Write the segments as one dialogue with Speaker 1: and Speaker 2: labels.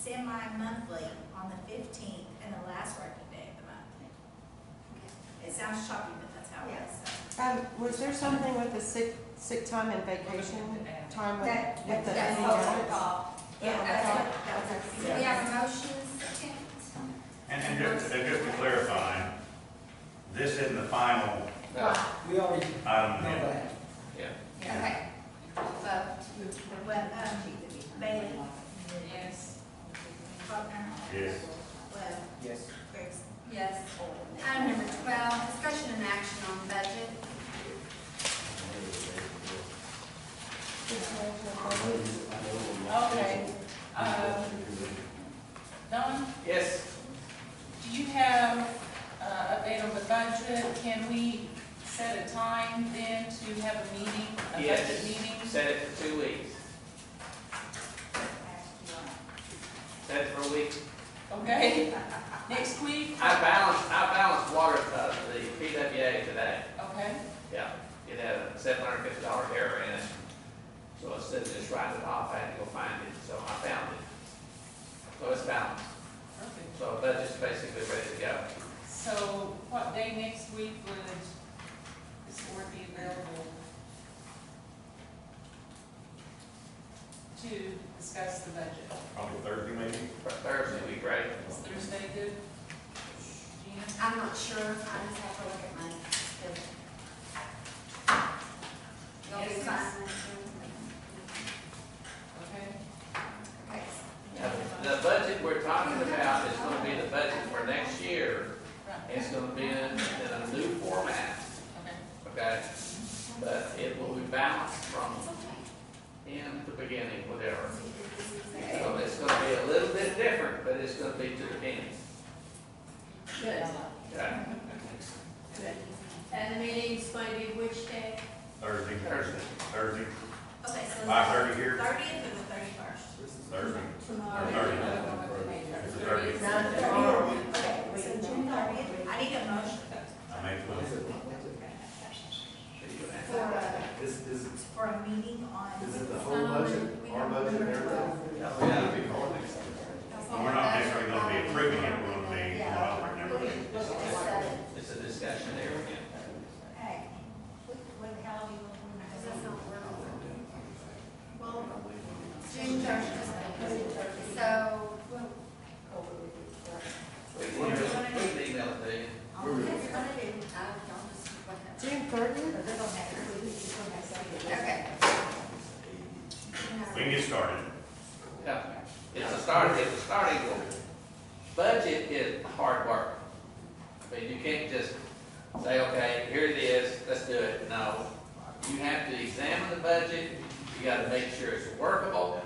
Speaker 1: semi-monthly on the fifteenth and the last working day of the month. It sounds shocking, but that's how it is.
Speaker 2: Um, was there something with the sick, sick time and vacation time with,
Speaker 3: That-
Speaker 2: with the?
Speaker 3: that's what we thought.
Speaker 1: Yeah, that's
Speaker 3: okay.
Speaker 1: what, that was, so we have a motion, second?
Speaker 4: And, and just, and just to clarify, this isn't the final
Speaker 5: We already know
Speaker 4: item, yet.
Speaker 5: that.
Speaker 1: Okay. Vote. Well, um, Bailey,
Speaker 3: Yes.
Speaker 1: Faulkner,
Speaker 4: yes,
Speaker 1: Webb,
Speaker 5: Yes.
Speaker 1: Griggs.
Speaker 3: Yes. Item number twelve, discussion and action on budget.
Speaker 6: Okay, um, Don,
Speaker 5: Yes.
Speaker 6: do you have, uh, update on the budget? Can we set a time then to have a meeting, a budget
Speaker 7: Yes.
Speaker 6: meeting?
Speaker 7: Set it for two weeks. Set it for a week.
Speaker 6: Okay, next week,
Speaker 7: I balanced, I balanced water, uh, the PWA today.
Speaker 6: okay,
Speaker 7: Yeah, it had a seven hundred fifty dollar error in it. So instead of just writing it off, I had to go find it, so I found it. So it's balanced.
Speaker 6: perfect.
Speaker 7: So budget's basically ready to go.
Speaker 6: So what day next week would this board be available to discuss the budget?
Speaker 4: probably Thursday maybe.
Speaker 7: For Thursday, we ready.
Speaker 6: Is Thursday good? Gina?
Speaker 3: I'm not sure, I just have to look at my schedule. You'll be
Speaker 6: Yes,
Speaker 3: fine.
Speaker 6: Okay.
Speaker 3: Okay.
Speaker 7: Now, The budget we're talking about is gonna be the budget for next year.
Speaker 6: Right.
Speaker 7: It's gonna be in, in a new format.
Speaker 6: Okay.
Speaker 7: okay? But it will be balanced from end to beginning, whatever. So it's gonna be a little bit different, but it's gonna be to the end,
Speaker 8: Good.
Speaker 7: okay?
Speaker 8: And the meeting's going to be which day?
Speaker 4: Thursday, Thursday, Thursday,
Speaker 1: Okay, so.
Speaker 4: five thirty here,
Speaker 1: Thirtieth or the thirty-first?
Speaker 4: Thursday, or
Speaker 8: Tomorrow.
Speaker 4: thirty, it's the thirtieth.
Speaker 1: Okay, so June thirtieth, I need a motion
Speaker 4: I made the motion.
Speaker 1: for a,
Speaker 9: Is, is,
Speaker 1: for a meeting on.
Speaker 9: is it the whole budget, our budget, and everything?
Speaker 4: But we're not necessarily gonna be approving it, we're gonna be, we're not right now.
Speaker 7: It's a discussion there again.
Speaker 1: Hey, what, what, how do you?
Speaker 3: Does that sound workable?
Speaker 1: Well,
Speaker 3: June thirtieth. So,
Speaker 7: We can email- we can email it to you.
Speaker 3: I'll look at it. I don't just look at it.
Speaker 2: June thirtieth?
Speaker 3: Okay.
Speaker 4: We can get started.
Speaker 7: Yeah. It's a start, it's a starting goal. Budget is hard work. I mean, you can't just say, okay, here it is, let's do it. No. You have to examine the budget, you gotta make sure it's workable,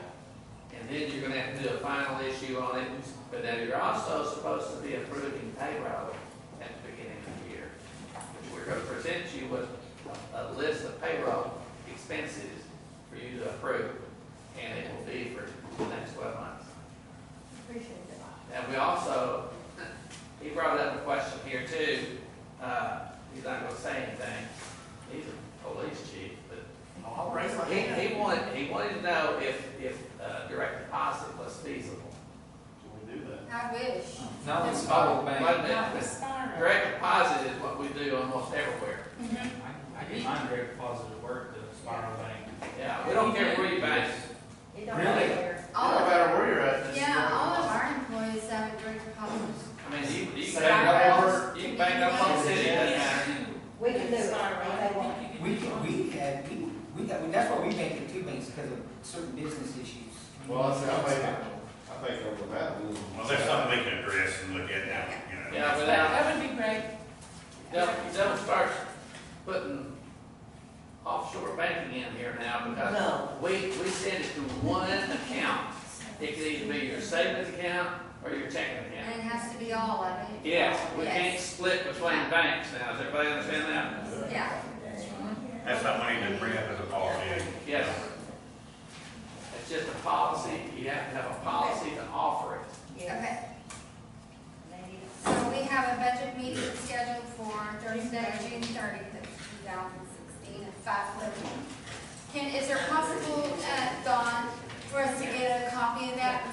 Speaker 7: and then you're gonna have to do a final issue on it. But then you're also supposed to be approving payroll at the beginning of the year. We're gonna present you with a- a list of payroll expenses for you to approve, and it will be for the next twelve months. And we also, he brought up a question here too, uh, he's not gonna say anything, he's a police chief, but. I'll raise my hand. He, he wanted, he wanted to know if, if, uh, direct deposit was feasible.
Speaker 3: I wish.
Speaker 5: Now let's
Speaker 10: Oh,
Speaker 5: follow
Speaker 7: Wait a
Speaker 5: back.
Speaker 6: Not the
Speaker 7: minute,
Speaker 6: spiral.
Speaker 7: direct deposit is what we do almost everywhere,
Speaker 6: Mhm.
Speaker 10: I get mine direct deposit at work, the spiral bank.
Speaker 7: yeah, we don't care where you bank.
Speaker 3: All
Speaker 9: No
Speaker 3: of,
Speaker 9: matter where you're at, this is.
Speaker 3: yeah, all of our employees have a direct deposit.
Speaker 7: I mean, you, you can
Speaker 9: Same
Speaker 7: bank up,
Speaker 9: number.
Speaker 7: on- you can bank up on the city, doesn't matter.
Speaker 6: We can do it. I think
Speaker 5: We,
Speaker 6: you can do it.
Speaker 5: we had, we, we got, that's why we make it two banks, because of certain business issues.
Speaker 9: Well, I said, I think, I think over that. we-
Speaker 4: Well, there's something we can address and look at now, you know.
Speaker 7: Yeah, but that-
Speaker 6: That would be great.
Speaker 7: Don't, don't start putting offshore banking in here now, because we, we send it to one account. It could either be your savings account or your checking account.
Speaker 3: And it has to be all of it.
Speaker 7: Yes, we can't split between banks now, does everybody understand that?
Speaker 3: Yeah.
Speaker 4: That's something we need to bring up as a policy.
Speaker 7: Yes. It's just a policy, you have to have a policy to offer it.
Speaker 3: Okay. So we have a budget meeting scheduled for Thursday, June thirtieth, two thousand sixteen, at five thirty. Can, is there possible, uh, Dawn, for us to get a copy of that